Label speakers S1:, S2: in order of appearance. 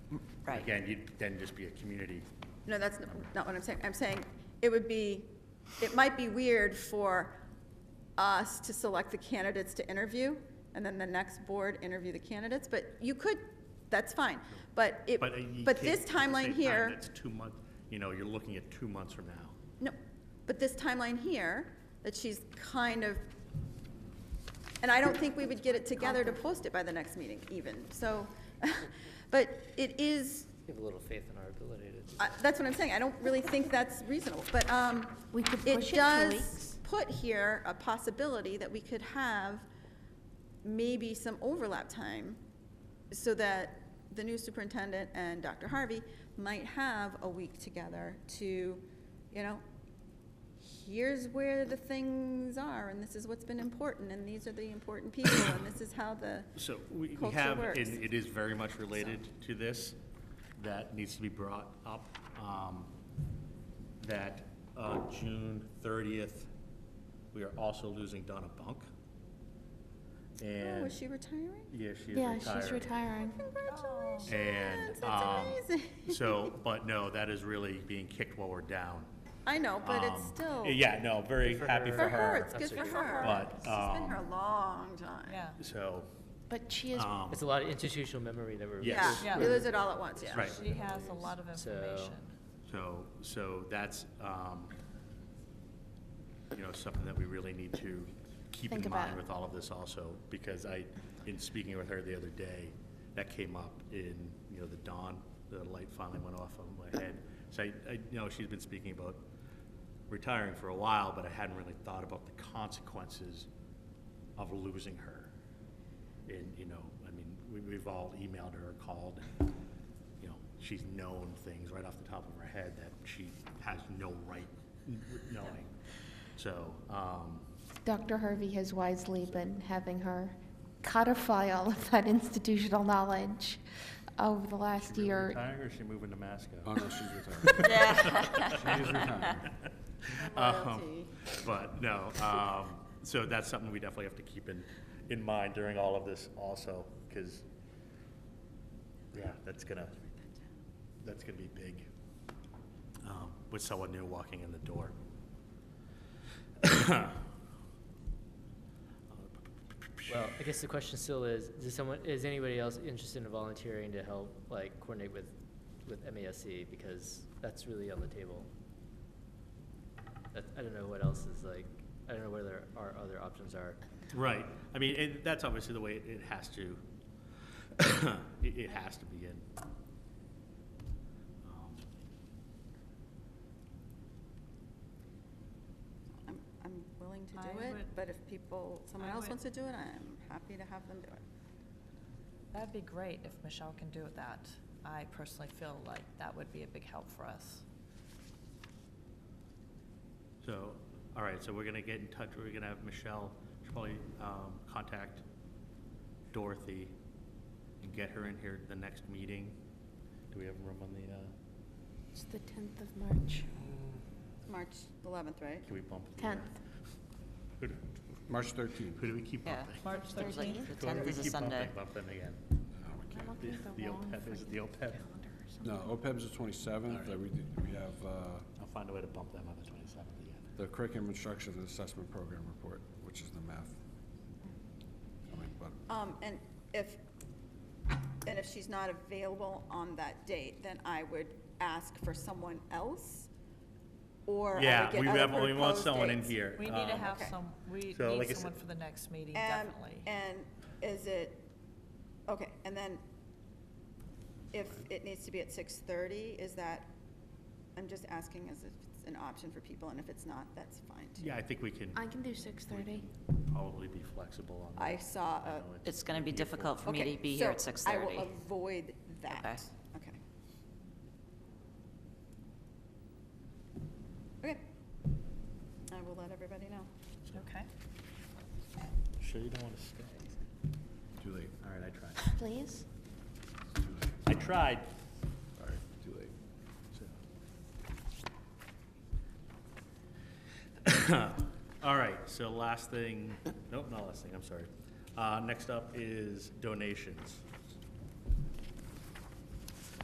S1: Right.
S2: Again, you'd then just be a community.
S1: No, that's n- not what I'm saying. I'm saying it would be, it might be weird for us to select the candidates to interview, and then the next board interview the candidates, but you could, that's fine. But it,
S2: But uh, you
S1: but
S2: can't-
S1: this
S2: at the same
S1: timeline
S2: time,
S1: here,
S2: That's two months, you know, you're looking at two months from now.
S1: no, but this timeline here, that she's kind of, and I don't think we would get it together to post it by the next meeting even, so, but it is,
S3: We have a little faith in our ability to.
S1: I- That's what I'm saying, I don't really think that's reasonable, but, um,
S4: We could push it
S1: it
S4: two
S1: does
S4: weeks.
S1: put here a possibility that we could have maybe some overlap time so that the new superintendent and Dr. Harvey might have a week together to, you know, here's where the things are, and this is what's been important, and these are the important people, and this is how the,
S2: So we we
S1: Culture
S2: have,
S1: works.
S2: and it is very much related to this, that needs to be brought up, um, that uh, June 30th, we are also losing Donna Bunk.
S1: oh,
S2: And,
S1: is Oh, she retiring?
S2: yeah, she is
S4: Yeah,
S2: retired.
S4: she's retiring.
S1: Congratulations,
S2: And, um,
S1: that's amazing.
S2: so, but no, that is really being kicked while we're down.
S1: I know, but it's
S2: Um,
S1: still.
S2: Yeah, no, very
S3: Good for
S2: happy
S3: her.
S1: For
S2: for
S1: her,
S2: her.
S1: it's good for
S3: Absolutely.
S1: her.
S2: But,
S1: She's been
S2: um,
S1: here a long time.
S5: Yeah.
S2: So,
S4: But she is,
S2: um,
S3: It's a lot of institutional memory that we're.
S2: Yes.
S1: Yeah,
S5: Yeah.
S1: we lose it all at once, yeah.
S2: Right.
S5: She has a lot of
S3: So-
S5: information.
S2: So, so that's, um, you know, something that we really need to keep
S4: Think
S2: in
S4: about.
S2: mind with all of this also, because I, in speaking with her the other day, that came up in, you know, the dawn, the light finally went off on my head. So I, I, you know, she's been speaking about retiring for a while, but I hadn't really thought about the consequences of losing her. And, you know, I mean, we, we've all emailed her, called, and, you know, she's known things right off the top of her head that she has no right knowing. So, um,
S4: Dr. Harvey has wisely been having her codify all of that institutional knowledge over the last
S2: she really
S4: year.
S2: retiring or is she moving to Masco?
S6: Oh, no, she's retired. She is retired.
S2: Um, But no, um, so that's something we definitely have to keep in, in mind during all of this also, because, yeah, that's gonna, that's gonna be big, um, with someone new walking in the door.
S3: Well, I guess the question still is, is someone, is anybody else interested in volunteering to help, like, coordinate with, with MASC? Because that's really on the table. That, I don't know what else is like, I don't know where there are other options are.
S2: Right, I mean, it that's obviously the way it, it has to, it, it has to begin. Um,
S1: I'm, I'm willing to do
S5: I
S1: it,
S5: would-
S1: but if people, someone
S5: I
S1: else
S5: would-
S1: wants to do it, I'm happy to have them do it.
S5: That'd be great if Michelle can do that. I personally feel like that would be a big help for us.
S2: So, all right, so we're gonna get in touch, we're gonna have Michelle, she'll probably, um, contact Dorothy and get her in here at the next meeting. Do we have room on the, uh,
S4: It's the 10th of March.
S1: March 11th, right?
S2: can we bump? the, uh,
S4: 10th.
S2: Who do-
S6: March 13th.
S2: who do we keep bumping?
S5: March thirteenth.
S2: The tenth is a Sunday. Bump them again.
S6: No, we
S4: I'm
S6: can't.
S4: looking at the
S2: The
S4: wrong
S2: OPEB, is it the
S4: freaking
S2: OPEB?
S4: calendar or something.
S6: No, OPEB's the 27th,
S2: All right.
S6: we do- we have uh,
S2: I'll find a way to bump them on the twenty-seventh again.
S6: the curriculum instruction and assessment program report, which is the math. I mean, but
S1: Um, and if, and if she's not available on that date, then I would ask for someone else, or I would
S2: Yeah,
S1: get
S2: we
S1: other
S2: have, we want
S1: proposed
S2: someone in
S1: dates.
S2: here.
S5: We need to
S2: um,
S5: have
S1: Okay.
S5: some, we
S2: So, like I
S5: need
S2: said-
S5: someone for the next meeting,
S1: And-
S5: definitely.
S1: And is it, okay, and then if it needs to be at six thirty, is that, I'm just asking as if it's an option for people, and if it's not, that's fine too.
S2: Yeah, I think we can
S4: I can do 6:30.
S2: probably be flexible on that.
S1: I uh, saw
S2: I
S1: a.
S2: know
S7: It's going to be difficult for me
S1: Okay,
S7: to be here at
S1: so
S7: 6:30.
S1: I will avoid that. Okay. Okay. I will let everybody know.
S5: Okay.
S2: Sure you don't wanna stay?
S6: too late,
S2: All right, I tried.
S4: Please?
S6: too late,
S2: I tried.
S6: sorry, too late.
S2: All right, so last thing, nope, not last thing, I'm sorry. Uh, next up is donations.